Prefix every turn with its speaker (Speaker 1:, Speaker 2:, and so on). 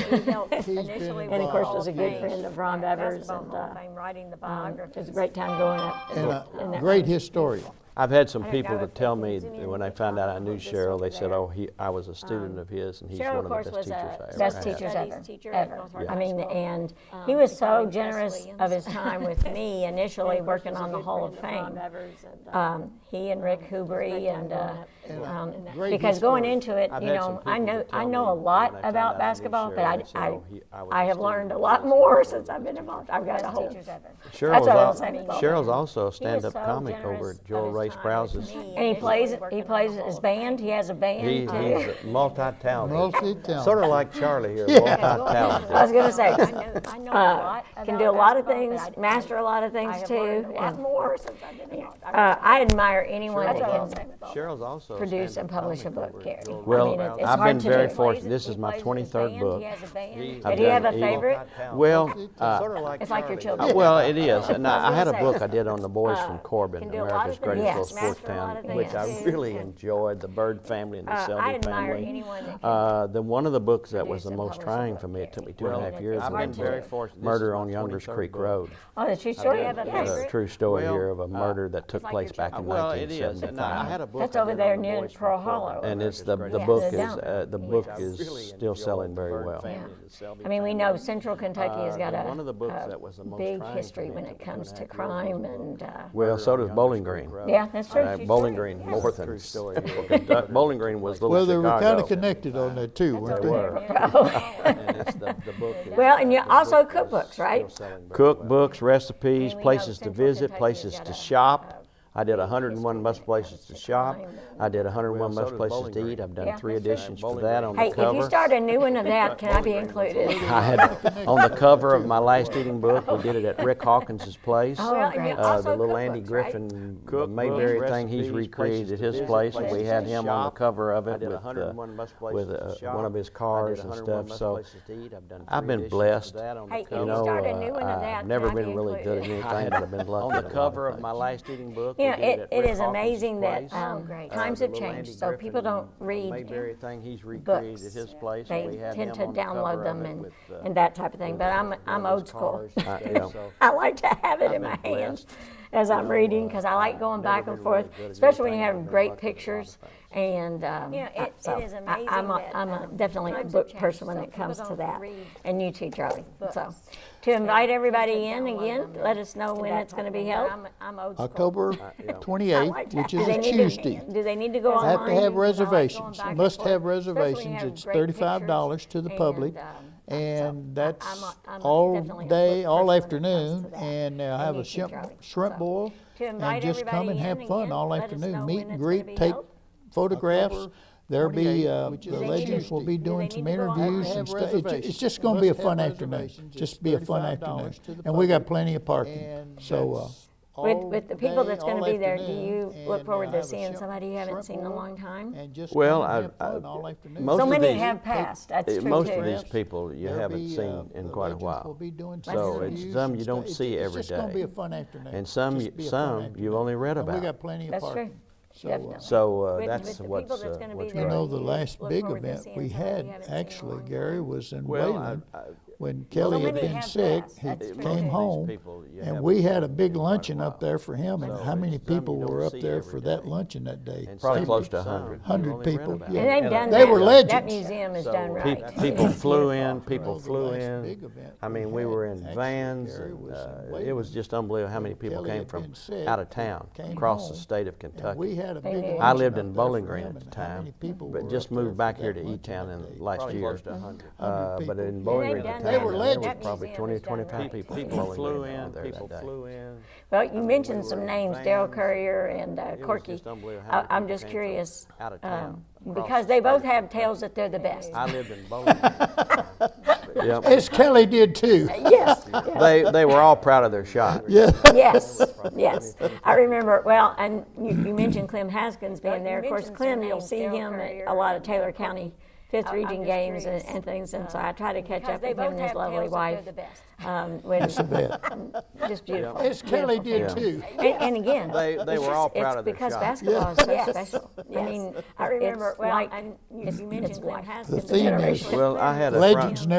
Speaker 1: who helped
Speaker 2: been
Speaker 1: initially with
Speaker 2: involved.
Speaker 1: the Hall
Speaker 2: And of
Speaker 1: of
Speaker 2: course
Speaker 1: Fame.
Speaker 2: was a good friend of Ron Evers
Speaker 1: Basketball
Speaker 2: and,
Speaker 1: Hall
Speaker 2: uh,
Speaker 1: of Fame, writing the
Speaker 2: Um,
Speaker 1: biography.
Speaker 2: It was a great time going up. uh, in
Speaker 3: And
Speaker 2: that- in a that
Speaker 3: great
Speaker 2: room.
Speaker 3: historian.
Speaker 4: I've had some
Speaker 1: I don't
Speaker 4: people
Speaker 1: know
Speaker 4: to
Speaker 1: if that
Speaker 4: tell me,
Speaker 1: continues
Speaker 4: when I
Speaker 1: to
Speaker 4: found out I
Speaker 1: follow
Speaker 4: knew
Speaker 1: this
Speaker 4: Cheryl, they said,
Speaker 1: over
Speaker 4: oh, he, I was a student of his and he's
Speaker 2: Cheryl,
Speaker 4: one
Speaker 2: of
Speaker 4: of
Speaker 2: course,
Speaker 4: the best
Speaker 2: was
Speaker 4: teachers I
Speaker 2: a
Speaker 4: ever
Speaker 2: best
Speaker 4: had.
Speaker 2: teachers
Speaker 1: Studies
Speaker 2: ever,
Speaker 1: teacher at
Speaker 2: ever.
Speaker 1: North
Speaker 2: I
Speaker 1: Harbour
Speaker 2: mean,
Speaker 1: High School.
Speaker 2: and
Speaker 1: Um,
Speaker 2: he was
Speaker 1: he
Speaker 2: so
Speaker 1: probably Chris
Speaker 2: generous of his
Speaker 1: Williams.
Speaker 2: time with me initially, working on the Hall of Fame.
Speaker 1: uh,
Speaker 2: Um, He and Rick Hubery and, uh, um,
Speaker 3: Great
Speaker 2: because going
Speaker 3: historian.
Speaker 2: into it,
Speaker 4: I've
Speaker 2: you
Speaker 4: had some
Speaker 2: know, I
Speaker 4: people
Speaker 2: know,
Speaker 4: to
Speaker 2: I
Speaker 4: tell
Speaker 2: know a
Speaker 4: me
Speaker 2: lot
Speaker 4: when I found out I
Speaker 2: about
Speaker 4: knew
Speaker 2: basketball, but
Speaker 4: Cheryl,
Speaker 2: I,
Speaker 4: they said,
Speaker 2: I,
Speaker 4: "Oh, he- I was
Speaker 2: I have
Speaker 4: a student
Speaker 2: learned a
Speaker 4: of
Speaker 2: lot
Speaker 4: his."
Speaker 2: more since I've been involved. I've got a whole.
Speaker 1: Teachers ever.
Speaker 4: Cheryl
Speaker 2: That's
Speaker 4: was
Speaker 2: what I
Speaker 4: al-
Speaker 2: was saying about
Speaker 4: Cheryl's
Speaker 2: him.
Speaker 4: also a
Speaker 2: so
Speaker 4: stand-up comic
Speaker 2: generous
Speaker 4: over
Speaker 2: of
Speaker 4: at Joel
Speaker 2: his
Speaker 4: Ray
Speaker 2: time
Speaker 4: Sprouse's.
Speaker 2: And he plays, he plays his band, he has a
Speaker 4: He,
Speaker 2: band
Speaker 4: he's
Speaker 2: too.
Speaker 4: a multi-talented,
Speaker 3: Multi-talented.
Speaker 4: sort of like Charlie here,
Speaker 2: I was
Speaker 4: multi-talented.
Speaker 2: gonna say,
Speaker 1: I know a
Speaker 2: uh,
Speaker 1: lot
Speaker 2: can
Speaker 1: about
Speaker 2: do a lot of
Speaker 1: basketball,
Speaker 2: things,
Speaker 1: but I-
Speaker 2: master a lot of
Speaker 1: I
Speaker 2: things
Speaker 1: have
Speaker 2: too.
Speaker 1: learned a lot
Speaker 2: and,
Speaker 1: more since I've been involved. I've
Speaker 2: Uh, I admire anyone that
Speaker 4: That's what I was
Speaker 2: can
Speaker 4: Cheryl's also a
Speaker 2: produce and
Speaker 4: stand-up
Speaker 2: publish a
Speaker 4: comic
Speaker 2: book,
Speaker 4: over at
Speaker 2: Gary. I
Speaker 4: Joel Ray
Speaker 2: mean,
Speaker 4: Sprouse's.
Speaker 2: it- it's
Speaker 4: I've
Speaker 2: hard
Speaker 4: been
Speaker 2: to
Speaker 4: very
Speaker 2: do.
Speaker 4: fortunate. This is my 23rd book.
Speaker 2: He has a band.
Speaker 4: I've
Speaker 2: Did he have a
Speaker 4: done eight.
Speaker 2: favorite?
Speaker 4: Well, uh,
Speaker 3: Sort of like
Speaker 2: It's like your
Speaker 3: Charlie.
Speaker 4: Uh,
Speaker 2: children.
Speaker 4: Well, it is, and
Speaker 2: I
Speaker 4: I I
Speaker 2: was
Speaker 4: had a
Speaker 2: gonna
Speaker 4: book
Speaker 2: say,
Speaker 4: I did on the boys from Corbin,
Speaker 2: can do a lot of things,
Speaker 4: America's Greatest
Speaker 2: yes.
Speaker 4: Little Sports
Speaker 2: master a lot
Speaker 4: Town,
Speaker 2: of
Speaker 4: which I
Speaker 2: things, too,
Speaker 4: really enjoyed, the Bird family and the
Speaker 2: Uh, I
Speaker 4: Selby
Speaker 2: admire
Speaker 4: family.
Speaker 2: anyone that can
Speaker 4: Uh, The, one of the books that was
Speaker 2: produce
Speaker 4: the
Speaker 2: and
Speaker 4: most
Speaker 2: publish a
Speaker 4: trying
Speaker 2: book,
Speaker 4: for me, it
Speaker 2: Gary.
Speaker 4: took me two and a
Speaker 2: Well,
Speaker 4: half years.
Speaker 2: I've
Speaker 4: was
Speaker 2: been
Speaker 4: the
Speaker 2: very
Speaker 3: fortunate. This is
Speaker 4: Murder
Speaker 3: my
Speaker 4: on Younger's
Speaker 3: 23rd
Speaker 4: Creek
Speaker 3: book.
Speaker 4: Road.
Speaker 2: Oh, the true story
Speaker 4: Yeah,
Speaker 2: of it,
Speaker 4: There's a
Speaker 2: yes.
Speaker 4: true story
Speaker 3: Well,
Speaker 4: here of a murder that took
Speaker 1: like
Speaker 4: place
Speaker 1: your
Speaker 4: back
Speaker 1: children.
Speaker 4: in
Speaker 1: Well,
Speaker 4: nineteen seventy-five.
Speaker 3: a book.
Speaker 2: That's over there near Pearl Hollow.
Speaker 4: And it's, the, the
Speaker 2: Yeah,
Speaker 4: book
Speaker 2: the
Speaker 4: is,
Speaker 2: Selby
Speaker 4: uh, the
Speaker 2: family.
Speaker 4: book
Speaker 2: I
Speaker 3: really
Speaker 4: is still
Speaker 3: enjoyed
Speaker 4: selling
Speaker 3: the
Speaker 4: very
Speaker 3: Bird
Speaker 4: well.
Speaker 3: family.
Speaker 2: Yeah.
Speaker 3: the Selby
Speaker 2: I mean, we know Oh, Central Kentucky has
Speaker 4: Uh,
Speaker 2: got
Speaker 4: the
Speaker 2: a
Speaker 4: one of the books
Speaker 2: a
Speaker 4: that was the most
Speaker 2: big
Speaker 4: trying for
Speaker 2: hiysteric
Speaker 4: me
Speaker 2: when
Speaker 4: to
Speaker 2: it
Speaker 4: put
Speaker 2: comes
Speaker 4: in
Speaker 2: to
Speaker 4: that year was
Speaker 2: crime and, uh,
Speaker 4: Well, so does
Speaker 3: Younger's
Speaker 4: Bowling
Speaker 3: Creek
Speaker 4: Green.
Speaker 3: Road.
Speaker 2: yeah, that's
Speaker 4: Uh,
Speaker 2: true.
Speaker 4: Bowling Green, more than, Kentuck- Bowling Green was Little
Speaker 3: Well,
Speaker 4: Chicago.
Speaker 3: they were kind of connected on that too, weren't
Speaker 4: They
Speaker 3: they?
Speaker 4: were. And it's the- the book is-
Speaker 2: Well, and you-
Speaker 4: the book
Speaker 2: also
Speaker 4: is
Speaker 2: cookbooks,
Speaker 4: still
Speaker 2: right?
Speaker 4: selling very well.
Speaker 5: cookbooks, recipes,
Speaker 2: we know
Speaker 5: places to
Speaker 2: Central
Speaker 5: visit,
Speaker 2: Kentucky
Speaker 5: places
Speaker 2: has got
Speaker 5: to
Speaker 2: a,
Speaker 5: shop. I did 101
Speaker 2: history
Speaker 5: must
Speaker 2: when it
Speaker 5: places to
Speaker 2: comes to
Speaker 5: shop.
Speaker 2: crime
Speaker 5: I did 101
Speaker 4: Well, so
Speaker 5: must
Speaker 4: did
Speaker 5: places
Speaker 4: Bowling
Speaker 5: to
Speaker 4: Green.
Speaker 5: eat. I've
Speaker 2: Yeah,
Speaker 5: done three
Speaker 2: that's true.
Speaker 5: editions for
Speaker 4: Bowling
Speaker 5: that
Speaker 4: Green
Speaker 5: on
Speaker 2: Hey,
Speaker 5: the
Speaker 2: if you
Speaker 5: cover.
Speaker 2: start a new one of that, can I be included?
Speaker 5: I had, on the cover of my last eating book, we did it at Rick Hawkins's place.
Speaker 2: Oh,
Speaker 5: Uh,
Speaker 2: great.
Speaker 5: The little Andy
Speaker 2: cookbooks, right?
Speaker 5: Griffin
Speaker 4: Cookbooks,
Speaker 5: Mayberry thing, he's
Speaker 4: recipes,
Speaker 5: recreated
Speaker 4: places
Speaker 5: at
Speaker 4: to
Speaker 5: his
Speaker 4: visit,
Speaker 5: place, and we
Speaker 4: places
Speaker 5: had
Speaker 4: to
Speaker 5: him on the
Speaker 4: shop.
Speaker 5: cover of
Speaker 4: I
Speaker 5: it
Speaker 4: did
Speaker 5: with,
Speaker 4: 101
Speaker 5: uh,
Speaker 4: must
Speaker 5: with
Speaker 4: places to
Speaker 5: uh,
Speaker 4: shop.
Speaker 5: one of his
Speaker 4: I did
Speaker 5: cars and
Speaker 4: 101
Speaker 5: stuff,
Speaker 4: must
Speaker 5: so.
Speaker 4: places to eat. I've done
Speaker 5: I've
Speaker 4: three
Speaker 5: been
Speaker 4: editions of
Speaker 5: blessed.
Speaker 4: that on the
Speaker 2: Hey, if
Speaker 4: cover.
Speaker 2: you
Speaker 5: You know,
Speaker 2: start a new one
Speaker 5: uh,
Speaker 2: of that,
Speaker 5: I've never
Speaker 2: can I
Speaker 5: been
Speaker 2: be
Speaker 5: really good at
Speaker 2: included?
Speaker 5: anything, but I've been lucky.
Speaker 4: On
Speaker 5: at a
Speaker 4: the
Speaker 5: lot
Speaker 4: cover of
Speaker 5: things.
Speaker 4: my last eating book.
Speaker 2: You
Speaker 4: we
Speaker 2: know,
Speaker 4: did
Speaker 2: it, it
Speaker 4: at Rick
Speaker 2: is
Speaker 4: Hawkins's
Speaker 2: amazing that
Speaker 4: place.
Speaker 5: Oh,
Speaker 2: um,
Speaker 1: great.
Speaker 2: times
Speaker 4: Uh,
Speaker 2: have
Speaker 4: the little
Speaker 2: changed,
Speaker 4: Andy
Speaker 2: so
Speaker 4: Griffin
Speaker 2: people don't read.
Speaker 4: Mayberry thing, he's recreated
Speaker 2: books.
Speaker 4: at his place. and we
Speaker 2: They
Speaker 4: had
Speaker 2: tend
Speaker 4: him
Speaker 2: to
Speaker 4: on the cover
Speaker 2: download
Speaker 4: of
Speaker 2: them
Speaker 4: it
Speaker 2: and,
Speaker 4: with, uh,
Speaker 2: and that type of thing, but I'm,
Speaker 4: one of
Speaker 2: I'm
Speaker 4: his
Speaker 2: old school.
Speaker 4: cars and
Speaker 5: Uh,
Speaker 4: stuff,
Speaker 5: yeah.
Speaker 4: so-
Speaker 2: I like to have it in my
Speaker 4: I've been
Speaker 2: hand
Speaker 4: blessed.
Speaker 2: as I'm reading, because I like
Speaker 4: uh,
Speaker 2: going
Speaker 4: never
Speaker 2: back and
Speaker 4: been really
Speaker 2: forth,
Speaker 4: good at
Speaker 2: especially when you
Speaker 4: anything. I've
Speaker 2: have
Speaker 4: been
Speaker 2: great
Speaker 4: lucky with a lot of
Speaker 2: pictures and, um.
Speaker 1: You know, it-
Speaker 2: I-
Speaker 1: it
Speaker 2: so
Speaker 1: is
Speaker 2: I-
Speaker 1: amazing
Speaker 2: I'm a-
Speaker 1: that,
Speaker 2: I'm a-
Speaker 1: um,
Speaker 2: definitely a
Speaker 1: times have
Speaker 2: book
Speaker 1: changed,
Speaker 2: person when
Speaker 1: so
Speaker 2: it
Speaker 1: people
Speaker 2: comes to
Speaker 1: don't
Speaker 2: that,
Speaker 1: read
Speaker 2: and you too, Charlie, so.
Speaker 1: books.
Speaker 2: To invite everybody
Speaker 1: tend
Speaker 2: in
Speaker 1: to download
Speaker 2: again,
Speaker 1: them
Speaker 2: let us know
Speaker 1: to
Speaker 2: when
Speaker 1: that
Speaker 2: it's
Speaker 1: type
Speaker 2: gonna
Speaker 1: of
Speaker 2: be
Speaker 1: thing, but
Speaker 2: held.
Speaker 1: I'm- I'm old school.
Speaker 3: October
Speaker 2: I
Speaker 3: 28th, which
Speaker 2: like that.
Speaker 3: is
Speaker 2: Do
Speaker 3: a
Speaker 2: they need to-
Speaker 3: Tuesday.
Speaker 2: Do they need to go
Speaker 3: Have to
Speaker 2: online?
Speaker 3: have
Speaker 2: Because I like going
Speaker 3: reservations.
Speaker 2: back and
Speaker 3: Must
Speaker 2: forth,
Speaker 3: have
Speaker 2: especially when you
Speaker 3: reservations.
Speaker 2: have
Speaker 3: It's
Speaker 2: great
Speaker 3: $35
Speaker 2: pictures
Speaker 3: to the
Speaker 2: and,
Speaker 3: public.
Speaker 2: um,
Speaker 3: And that's
Speaker 2: I'm a- I'm a-
Speaker 3: all
Speaker 2: definitely a
Speaker 3: day,
Speaker 2: book
Speaker 3: all
Speaker 2: person when it comes
Speaker 3: afternoon,
Speaker 2: to that.
Speaker 3: and they'll
Speaker 2: I
Speaker 3: have
Speaker 2: need
Speaker 3: a
Speaker 2: to
Speaker 3: shrimp,
Speaker 2: try.
Speaker 3: shrimp
Speaker 2: So,
Speaker 3: boil.
Speaker 2: to invite
Speaker 3: And just come
Speaker 2: everybody
Speaker 3: and
Speaker 2: in
Speaker 3: have fun
Speaker 2: again,
Speaker 3: all
Speaker 2: let us know
Speaker 3: afternoon,
Speaker 2: when
Speaker 3: meet and
Speaker 2: it's gonna be
Speaker 3: greet, take
Speaker 2: held.
Speaker 3: photographs. There'll be,
Speaker 2: 28th,
Speaker 3: uh,
Speaker 2: which
Speaker 3: the
Speaker 2: is a
Speaker 3: legends will be
Speaker 2: Tuesday. Do
Speaker 3: doing
Speaker 2: they
Speaker 3: some
Speaker 2: need to go out?
Speaker 3: interviews
Speaker 2: Have
Speaker 3: and stuff. It's, it's just gonna
Speaker 2: reservations.
Speaker 3: be a
Speaker 2: Must have
Speaker 3: fun afternoon,
Speaker 2: reservations.
Speaker 3: just be a fun
Speaker 2: $35
Speaker 3: afternoon.
Speaker 2: to the
Speaker 3: And we got
Speaker 2: public.
Speaker 3: plenty of parking,
Speaker 2: And
Speaker 3: so, uh,
Speaker 2: With, with the people that's
Speaker 3: all
Speaker 2: gonna be there, do you
Speaker 3: afternoon,
Speaker 2: look
Speaker 3: and
Speaker 2: forward
Speaker 3: I
Speaker 2: to
Speaker 3: have a
Speaker 2: seeing
Speaker 3: shrimp-
Speaker 2: somebody you haven't
Speaker 3: shrimp
Speaker 2: seen in a
Speaker 3: boil.
Speaker 2: long time?
Speaker 3: and just
Speaker 5: Well,
Speaker 3: come and
Speaker 5: I-
Speaker 3: have
Speaker 5: I-
Speaker 3: fun all afternoon.
Speaker 5: most
Speaker 2: So
Speaker 5: of
Speaker 2: many
Speaker 5: these-
Speaker 2: have passed, that's
Speaker 5: Uh,
Speaker 2: true too.
Speaker 5: Most of
Speaker 3: Photographs.
Speaker 5: these people you
Speaker 3: There'll
Speaker 5: haven't
Speaker 3: be, uh,
Speaker 5: seen in
Speaker 3: the
Speaker 5: quite a
Speaker 3: legends will
Speaker 5: while.
Speaker 3: be doing some
Speaker 5: So it's
Speaker 3: interviews
Speaker 5: some
Speaker 3: and
Speaker 5: you don't
Speaker 3: stuff. It's-
Speaker 5: see
Speaker 3: it's
Speaker 5: every
Speaker 3: just gonna
Speaker 5: day.
Speaker 3: be a fun afternoon.
Speaker 5: And some
Speaker 3: Just
Speaker 5: you-
Speaker 3: be a fun
Speaker 5: some
Speaker 3: afternoon.
Speaker 5: you've only read
Speaker 3: And we
Speaker 5: about.
Speaker 3: got plenty of
Speaker 2: That's
Speaker 3: parking.
Speaker 2: true,
Speaker 3: So, uh,
Speaker 2: definitely.
Speaker 5: So uh,
Speaker 2: With-
Speaker 5: that's
Speaker 2: with the
Speaker 5: what's,
Speaker 2: people that's
Speaker 5: uh,
Speaker 2: gonna be
Speaker 5: what's
Speaker 2: there.
Speaker 3: You
Speaker 5: great.
Speaker 3: know,
Speaker 2: do
Speaker 3: the
Speaker 2: you
Speaker 3: last
Speaker 2: look
Speaker 3: big
Speaker 2: forward to
Speaker 3: event
Speaker 2: seeing
Speaker 3: we
Speaker 2: somebody you
Speaker 3: had,
Speaker 2: haven't seen in a
Speaker 3: actually,
Speaker 2: long
Speaker 3: Gary, was in
Speaker 5: Well, I-
Speaker 3: Wayland.
Speaker 5: I-
Speaker 3: When Kelly had
Speaker 2: many
Speaker 3: been
Speaker 2: have
Speaker 3: sick,
Speaker 2: passed.
Speaker 3: he
Speaker 2: That's true.
Speaker 3: came
Speaker 2: Most of
Speaker 3: home,
Speaker 4: people you
Speaker 3: and
Speaker 4: haven't
Speaker 3: we
Speaker 4: seen
Speaker 3: had a big
Speaker 4: in quite a
Speaker 3: luncheon up
Speaker 4: while.
Speaker 3: there for him, and
Speaker 4: So
Speaker 3: how many
Speaker 4: it's some you
Speaker 3: people
Speaker 4: don't
Speaker 3: were up
Speaker 4: see
Speaker 3: there
Speaker 4: every
Speaker 3: for that
Speaker 4: day.
Speaker 3: luncheon that day?
Speaker 4: And
Speaker 5: Probably
Speaker 4: some-
Speaker 5: close to
Speaker 4: some
Speaker 5: 100.
Speaker 4: you only
Speaker 3: 100
Speaker 4: read
Speaker 3: people,
Speaker 4: about.
Speaker 3: yeah.
Speaker 2: And they've done
Speaker 3: They
Speaker 2: that.
Speaker 3: were
Speaker 2: That
Speaker 3: legends.
Speaker 2: museum is
Speaker 4: So,
Speaker 2: done
Speaker 4: pe-
Speaker 2: right.
Speaker 5: People flew in, people
Speaker 3: Well, the
Speaker 5: flew
Speaker 3: last
Speaker 5: in.
Speaker 3: big event
Speaker 5: I
Speaker 3: we
Speaker 5: mean, we
Speaker 3: had,
Speaker 5: were in
Speaker 3: actually,
Speaker 5: vans,
Speaker 3: Gary,
Speaker 5: and,
Speaker 3: was in
Speaker 5: uh, it
Speaker 3: Wayland
Speaker 5: was just unbelievable how many
Speaker 3: when
Speaker 5: people
Speaker 3: Kelly
Speaker 5: came
Speaker 3: had
Speaker 5: from
Speaker 3: been sick,
Speaker 5: out of town,
Speaker 3: came
Speaker 5: across the
Speaker 3: home,
Speaker 5: state of
Speaker 3: And we
Speaker 5: Kentucky.
Speaker 3: had a big
Speaker 2: did.
Speaker 3: luncheon
Speaker 5: I lived in
Speaker 3: up there for
Speaker 5: Bowling Green
Speaker 3: him,
Speaker 5: at the
Speaker 3: and how many
Speaker 5: time,
Speaker 3: people were
Speaker 5: but
Speaker 3: up
Speaker 5: just
Speaker 3: there
Speaker 5: moved
Speaker 3: for
Speaker 5: back
Speaker 3: that
Speaker 5: here to
Speaker 3: luncheon
Speaker 5: E-Town
Speaker 3: that
Speaker 5: in
Speaker 3: day?
Speaker 5: last
Speaker 4: Probably
Speaker 5: year.
Speaker 4: close to 100.
Speaker 5: Uh,
Speaker 3: people.
Speaker 5: But in
Speaker 3: Yeah,
Speaker 5: Bowling
Speaker 2: they've
Speaker 5: Green at
Speaker 2: done
Speaker 5: the
Speaker 2: that.
Speaker 3: They
Speaker 5: time,
Speaker 3: were
Speaker 5: there was
Speaker 3: legends.
Speaker 5: probably
Speaker 2: That
Speaker 5: 20 or
Speaker 2: museum was done
Speaker 5: 25
Speaker 2: right.
Speaker 5: people. from
Speaker 4: People
Speaker 5: Bowling
Speaker 4: flew
Speaker 5: Green
Speaker 4: in,
Speaker 5: there that
Speaker 4: people
Speaker 5: day.
Speaker 4: flew in.
Speaker 2: Well, you
Speaker 4: mean,
Speaker 2: mentioned
Speaker 4: we
Speaker 2: some
Speaker 4: were
Speaker 2: names, Daryl
Speaker 4: fans.
Speaker 2: Courier and uh,
Speaker 4: It was
Speaker 2: Corky.
Speaker 4: just unbelievable how
Speaker 2: I-
Speaker 4: many
Speaker 2: I'm
Speaker 4: people
Speaker 2: just
Speaker 4: came from
Speaker 2: curious,
Speaker 4: out of
Speaker 2: um,
Speaker 4: town, across
Speaker 2: because
Speaker 4: the
Speaker 2: they both
Speaker 4: state.
Speaker 2: have tales that they're the best.
Speaker 4: I lived in Bowling Green. Yep.
Speaker 3: As Kelly did too.
Speaker 2: Yes,
Speaker 5: They, they were all proud of their shot.
Speaker 2: yes, yes. I remember, well, and you you mentioned Clem Haskins being
Speaker 1: you
Speaker 2: there. Of course,
Speaker 1: mentioned
Speaker 2: Clem,
Speaker 1: some
Speaker 2: you'll
Speaker 1: names,
Speaker 2: see
Speaker 1: Daryl
Speaker 2: him at
Speaker 1: Courier
Speaker 2: a lot of
Speaker 1: and,
Speaker 2: Taylor
Speaker 1: uh,
Speaker 2: County Fifth
Speaker 1: I'm
Speaker 2: Reading
Speaker 1: just
Speaker 2: games and
Speaker 1: curious,
Speaker 2: and things, and so I try to catch
Speaker 1: uh, Because
Speaker 2: up
Speaker 1: they
Speaker 2: with him
Speaker 1: both
Speaker 2: and his
Speaker 1: have
Speaker 2: lovely
Speaker 1: tales that they're
Speaker 2: wife.
Speaker 1: the best.
Speaker 2: um, when-
Speaker 3: bet.
Speaker 2: Just beautiful.
Speaker 3: As Kelly did
Speaker 5: Yeah.
Speaker 3: too.
Speaker 2: And, and again,
Speaker 5: They- they
Speaker 2: it's
Speaker 5: were all
Speaker 2: just- it's
Speaker 5: proud of their
Speaker 2: because
Speaker 5: shot.
Speaker 2: basketball is so
Speaker 1: Yes.
Speaker 2: special. I
Speaker 1: Yes.
Speaker 2: mean,
Speaker 1: I remember-
Speaker 2: it's
Speaker 1: well,
Speaker 2: like
Speaker 1: and you-
Speaker 2: it's,
Speaker 1: you mentioned
Speaker 2: it's
Speaker 1: Glenn
Speaker 2: life.
Speaker 1: Haskins,
Speaker 3: The theme is
Speaker 5: Well, I had a friend.
Speaker 3: legends never